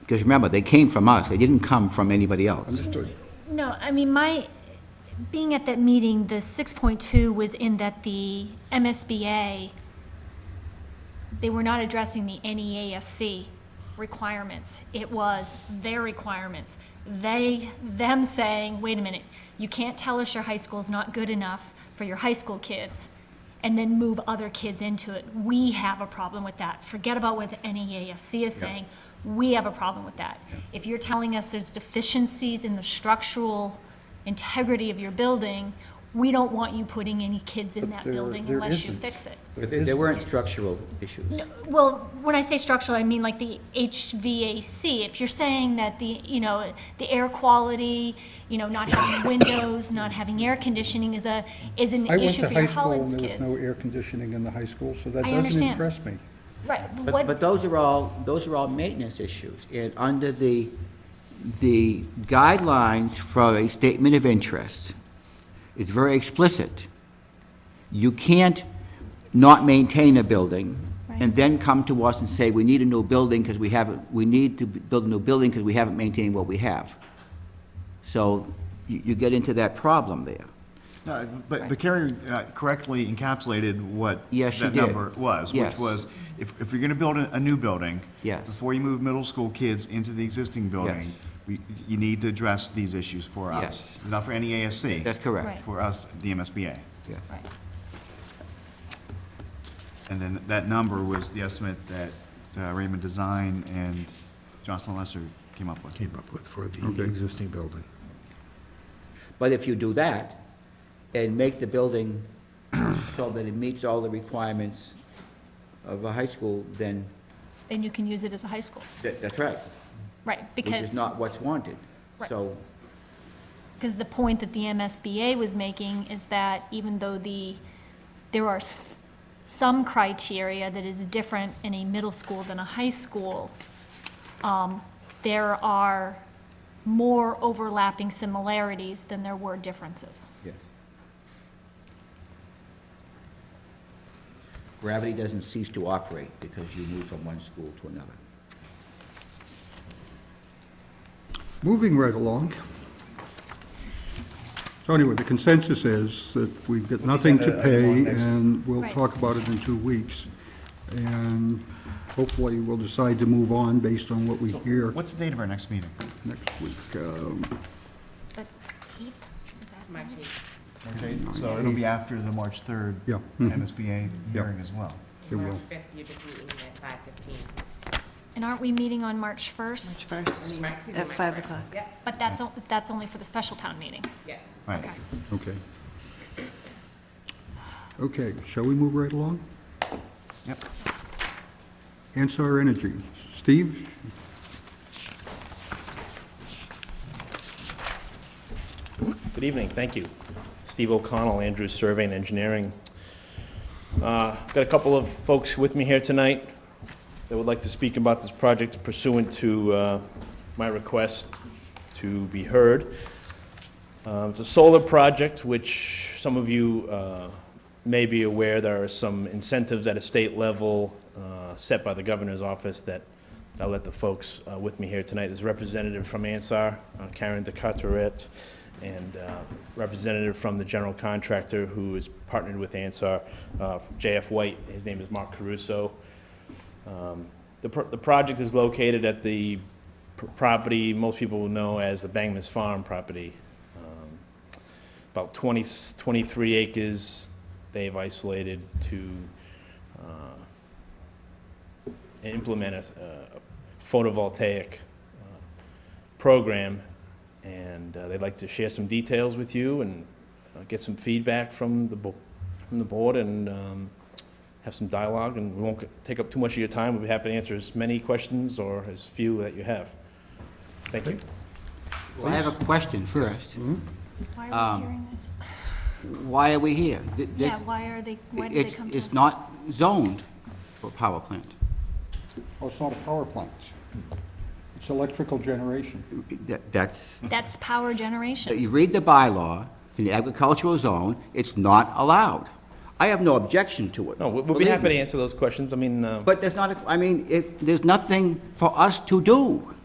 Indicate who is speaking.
Speaker 1: Because remember, they came from us, they didn't come from anybody else.
Speaker 2: Understood.
Speaker 3: No, I mean, my, being at that meeting, the 6.2 was in that the MSBA, they were not addressing the E NEASC requirements. It was their requirements. They, them saying, wait a minute, you can't tell us your high school's not good enough for your high school kids, and then move other kids into it. We have a problem with that. Forget about what the E NEASC is saying. We have a problem with that. If you're telling us there's deficiencies in the structural integrity of your building, we don't want you putting any kids in that
Speaker 2: there-
Speaker 3: building
Speaker 2: there
Speaker 3: unless you
Speaker 2: isn't.
Speaker 3: fix it.
Speaker 1: But they, they weren't structural issues.
Speaker 3: Well, when I say structural, I mean like the HVAC. If you're saying that the, you know, the air quality, you know, not having windows, not having air conditioning is a, is an
Speaker 2: I went
Speaker 3: issue
Speaker 2: to
Speaker 3: for
Speaker 2: high
Speaker 3: your
Speaker 2: school and
Speaker 3: Holland's
Speaker 2: there was no
Speaker 3: kids.
Speaker 2: air conditioning in the high school, so that
Speaker 3: I
Speaker 2: doesn't
Speaker 3: understand.
Speaker 2: impress me.
Speaker 3: Right, but
Speaker 1: But, but
Speaker 3: what,
Speaker 1: those are all, those are all maintenance issues. And under the, the guidelines for a statement of interest, it's very explicit. You can't not maintain a building and
Speaker 3: Right.
Speaker 1: then come to us and say, we need a new building because we haven't, we need to build a new building because we haven't maintained what we have. So you, you get into that problem there.
Speaker 4: No, But, but Carrie uh, correctly encapsulated what
Speaker 1: Yes, she
Speaker 4: that
Speaker 1: did.
Speaker 4: number was,
Speaker 1: Yes.
Speaker 4: which was, if, if you're gonna build a, a new building.
Speaker 1: Yes.
Speaker 4: Before you move middle school kids into the existing building,
Speaker 1: Yes.
Speaker 4: we, you need to address these issues for us.
Speaker 1: Yes.
Speaker 4: Not for any ASC.
Speaker 1: That's correct.
Speaker 3: Right.
Speaker 4: For us, the MSBA.
Speaker 1: Yeah.
Speaker 3: right,
Speaker 4: And then that number was the estimate that uh, Raymond Design and Jocelyn Lester came up with.
Speaker 5: came up with for the existing building.
Speaker 1: But if you do that and make the building so that it meets all the requirements of a high school, then
Speaker 3: then you can use it as a high school.
Speaker 1: that, that's right,
Speaker 3: Right,
Speaker 1: which is
Speaker 3: because,
Speaker 1: not what's wanted.
Speaker 3: Right.
Speaker 1: So,
Speaker 3: because the point that the MSBA was making is that even though the, there are s- some criteria that is different in a middle school than a high school, um, there are more overlapping similarities than there were differences.
Speaker 1: yes. Gravity doesn't cease to operate because you move from one school to another.
Speaker 2: Moving right along. So anyway, the consensus is that we've got nothing to pay, and we'll
Speaker 3: Right.
Speaker 2: talk about it in two weeks. And hopefully, we'll decide to move on based on what we hear
Speaker 4: What's the date of our next meeting?
Speaker 2: next week. Um,
Speaker 3: But eighth, is that right?
Speaker 4: March 8th? So it'll be after the March 3rd.
Speaker 2: Yeah, mhm.
Speaker 4: MSBA
Speaker 2: Yeah.
Speaker 4: hearing as well.
Speaker 2: It will.
Speaker 6: March fifth, you're just meeting at five fifteen.
Speaker 3: And aren't we meeting on March first?
Speaker 7: First, at 5 o'clock.
Speaker 6: Yeah,
Speaker 3: But that's, o- that's only for the special town meeting.
Speaker 6: yeah.
Speaker 4: Right.
Speaker 2: Okay. Okay, shall we move right along?
Speaker 4: Yep.
Speaker 2: Ansar Energy. Steve?
Speaker 8: Good evening, thank you. Steve O'Connell, Andrews Survey and Engineering. Uh, Got a couple of folks with me here tonight that would like to speak about this project pursuant to uh, my request to be heard. Uh, It's a solar project, which some of you uh, may be aware, there are some incentives at a state level uh, set by the governor's office that I'll let the folks uh, with me here tonight. There's a representative from Ansar, uh, Karen DeCarteret, and uh, representative from the general contractor who is partnered with Ansar, uh, JF White. His name is Mark Caruso. Um, The, pro- the project is located at the pr- property most people will know as the Bangmas Farm property. Um, About 20, 23 acres they've isolated to uh, implement a a photovoltaic uh, program, and uh, they'd like to share some details with you and uh, get some feedback from the, bo- from the board and um, have some dialogue, and we won't c- take up too much of your time. We'll be happy to answer as many questions or as few that you have. Thank you.
Speaker 1: Well, I have a question first.
Speaker 3: Why are we hearing this?
Speaker 1: Why are we here? Th- Um, this-
Speaker 3: Yeah, why are they, why did they
Speaker 1: It's,
Speaker 3: come to us?
Speaker 1: it's not zoned for power plant.
Speaker 2: Oh, it's not a power plant. It's electrical generation.
Speaker 1: That- That's,
Speaker 3: That's power generation.
Speaker 1: that you read the bylaw, it's in the agricultural zone, it's not allowed. I have no objection to it.
Speaker 8: No, we- we'll be
Speaker 1: believe
Speaker 8: happy to
Speaker 1: me.
Speaker 8: answer those questions. I mean, uh,
Speaker 1: But there's not, a- I mean, if, there's nothing for us to do.